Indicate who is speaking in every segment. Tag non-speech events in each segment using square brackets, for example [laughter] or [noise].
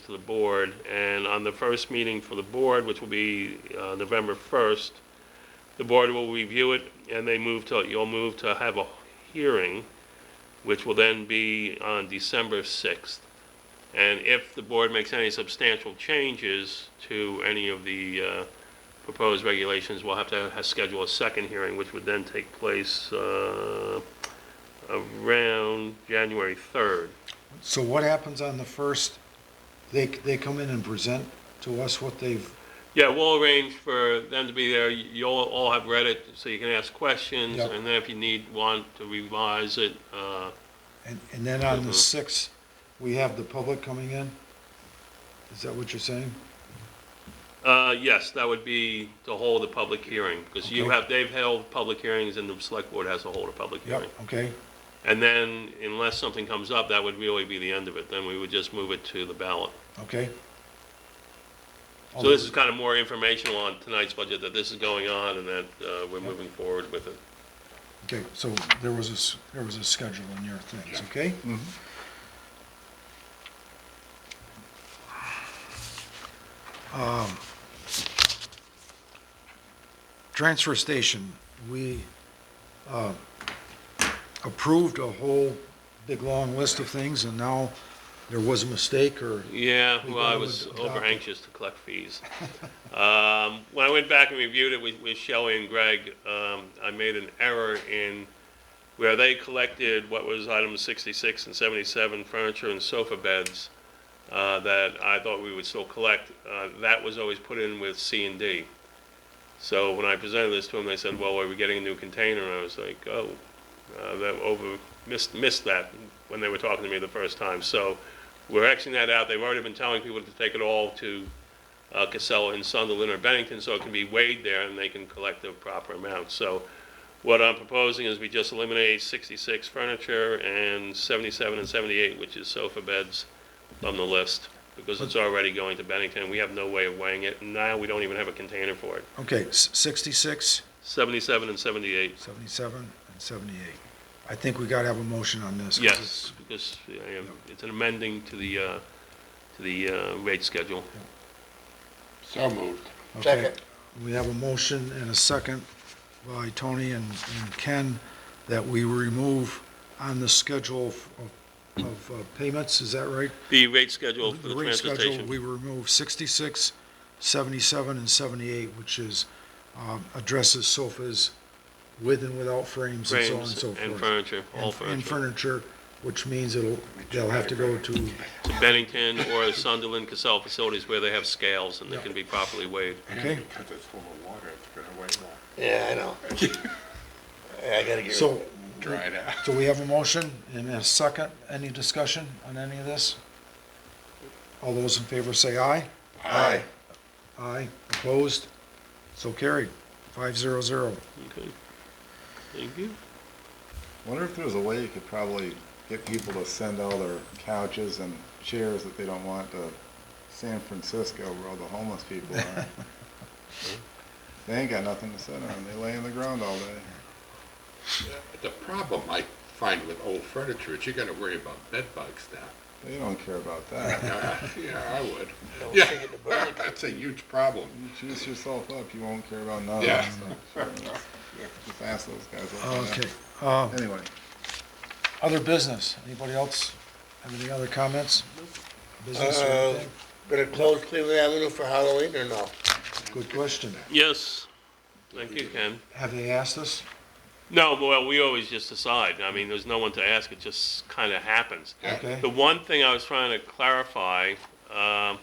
Speaker 1: to the board, and on the first meeting for the board, which will be uh, November 1st, the board will review it, and they move to, you'll move to have a hearing, which will then be on December 6th. And if the board makes any substantial changes to any of the uh, proposed regulations, we'll have to ha- schedule a second hearing, which would then take place uh, around January 3rd.
Speaker 2: So what happens on the first? They, they come in and present to us what they've,
Speaker 1: Yeah, we'll arrange for them to be there. You- You'll all have read it, so you can ask questions,
Speaker 2: Yep.
Speaker 1: and then if you need, want to revise it, uh,
Speaker 2: and, and then on the
Speaker 1: Mhm.
Speaker 2: sixth, we have the public coming in? Is that what you're saying?
Speaker 1: uh, yes, that would be to hold a public hearing, because you
Speaker 2: Okay.
Speaker 1: have, they've held public hearings, and the select board has to hold a public
Speaker 2: Yep,
Speaker 1: hearing.
Speaker 2: okay,
Speaker 1: And then, unless something comes up, that would really be the end of it. Then we would just move it to the ballot.
Speaker 2: okay.
Speaker 1: So this is kind of more informational on tonight's budget, that this is going on, and that uh, we're moving forward with it.
Speaker 2: Okay, so there was a, s- there was a schedule in your things, okay? Um, Transfer station, we uh, approved a whole big, long list of things, and now there was a mistake, or,
Speaker 1: Yeah,
Speaker 2: We
Speaker 1: well, I
Speaker 2: go
Speaker 1: was
Speaker 2: with
Speaker 1: over
Speaker 2: adopted.
Speaker 1: anxious to collect fees. Um, When I went back and reviewed it with with Shelley and Greg, um, I made an error in where they collected what was items 66 and 77, furniture and sofa beds, uh, that I thought we would still collect. Uh, That was always put in with C and D. So when I presented this to them, they said, well, are we getting a new container? And I was like, oh, uh, that over, missed, missed that when they were talking to me the first time. So we're Xing that out. They've already been telling people to take it all to uh, Casella and Sunderland or Bennington so it can be weighed there and they can collect the proper amount. So what I'm proposing is we just eliminate 66 furniture and 77 and 78, which is sofa beds, from the list because it's already going to Bennington. We have no way of weighing it. Now we don't even have a container for it.
Speaker 2: okay, s- 66,
Speaker 1: 77 and 78,
Speaker 2: 77, and 78. I think we gotta have a motion on this. 'cause
Speaker 1: yes,
Speaker 2: it's-
Speaker 1: because uh, it's an amending to the, uh, to the uh, rate schedule.
Speaker 3: So moved.
Speaker 2: Okay.
Speaker 3: Second.
Speaker 2: We have a motion and a second by Tony and and Ken that we remove on the schedule of- of uh, payments, is that right?
Speaker 1: The rate schedule for the
Speaker 2: rate
Speaker 1: transportation.
Speaker 2: schedule, we remove 66, 77, and 78, which is, um, addresses sofas with and without frames and so on and
Speaker 1: frames
Speaker 2: so forth.
Speaker 1: and furniture, all
Speaker 2: And- And
Speaker 1: furniture.
Speaker 2: furniture, which means it'll, they'll have to go to,
Speaker 1: To Bennington or Sunderland Casell facilities where they have scales and they can be properly weighed.
Speaker 2: okay?
Speaker 4: Because it's full of water, it's gonna weigh more,
Speaker 3: Yeah, I
Speaker 5: [laughs]
Speaker 3: know. I gotta get rid
Speaker 2: So,
Speaker 4: dried out.
Speaker 2: So we have a motion and a second. Any discussion on any of this? All those in favor say aye.
Speaker 3: Aye.
Speaker 2: Aye. Opposed? So carried. Five zero zero.
Speaker 1: Okay. Thank you.
Speaker 4: Wonder if there's a way you could probably get people to send all their couches and chairs that they don't want to San Francisco where all the homeless people are. They ain't got nothing to sit on, they lay on the ground all day.
Speaker 5: The problem I find with old furniture is you gotta worry about bed bugs now. [laughs]
Speaker 4: They don't care about that.
Speaker 5: Uh, Yeah, I would.
Speaker 3: Don't
Speaker 5: Yeah,
Speaker 3: take
Speaker 5: [laughs]
Speaker 3: it to Burlington.
Speaker 5: That's a huge problem.
Speaker 4: You juice yourself up, you won't care about none of
Speaker 5: Yeah.
Speaker 4: that stuff. Just ask those guys. what they
Speaker 2: Okay.
Speaker 4: know.
Speaker 2: Uh,
Speaker 4: Anyway,
Speaker 2: Other business. Anybody else have any other comments? Business or
Speaker 3: Uh,
Speaker 2: anything?
Speaker 3: of- Gonna close Cleveland Avenue for Halloween or no?
Speaker 2: Good question.
Speaker 1: Yes, thank you, Ken.
Speaker 2: Have they asked us?
Speaker 1: No, well, we always just decide. I mean, there's no one to ask, it just kind of happens.
Speaker 2: Okay.
Speaker 1: The one thing I was trying to clarify um,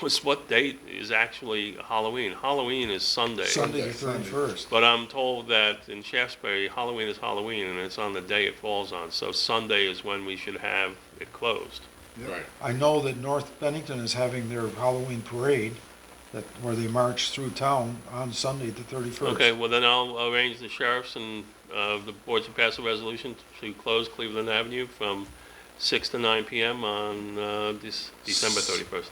Speaker 1: was what date is actually Halloween? Halloween is Sunday.
Speaker 2: Sunday the
Speaker 4: Sunday.
Speaker 2: thirty-first.
Speaker 1: But I'm told that in Shaftesbury, Halloween is Halloween, and it's on the day it falls on, so Sunday is when we should have it closed.
Speaker 4: Yep.
Speaker 5: Right.
Speaker 2: I know that North Bennington is having their Halloween parade that, where they march through town on Sunday the thirty-first.
Speaker 1: Okay, well, then I'll arrange the sheriffs and uh, the boards to pass a resolution to close Cleveland Avenue from 6 to 9 PM on uh, Dec- December 31st.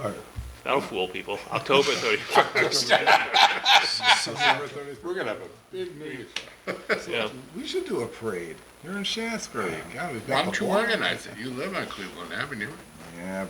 Speaker 2: All right.
Speaker 1: That'll fool people. October
Speaker 2: [laughs]
Speaker 1: 31st.
Speaker 4: December 31st.
Speaker 5: We're gonna have a big meeting.
Speaker 1: Yeah.
Speaker 4: We should do a parade. You're in Shaftesbury. God, we've got
Speaker 5: Why
Speaker 4: the
Speaker 5: don't you
Speaker 4: block.
Speaker 5: organize it? You live on Cleveland Avenue.
Speaker 4: Yeah,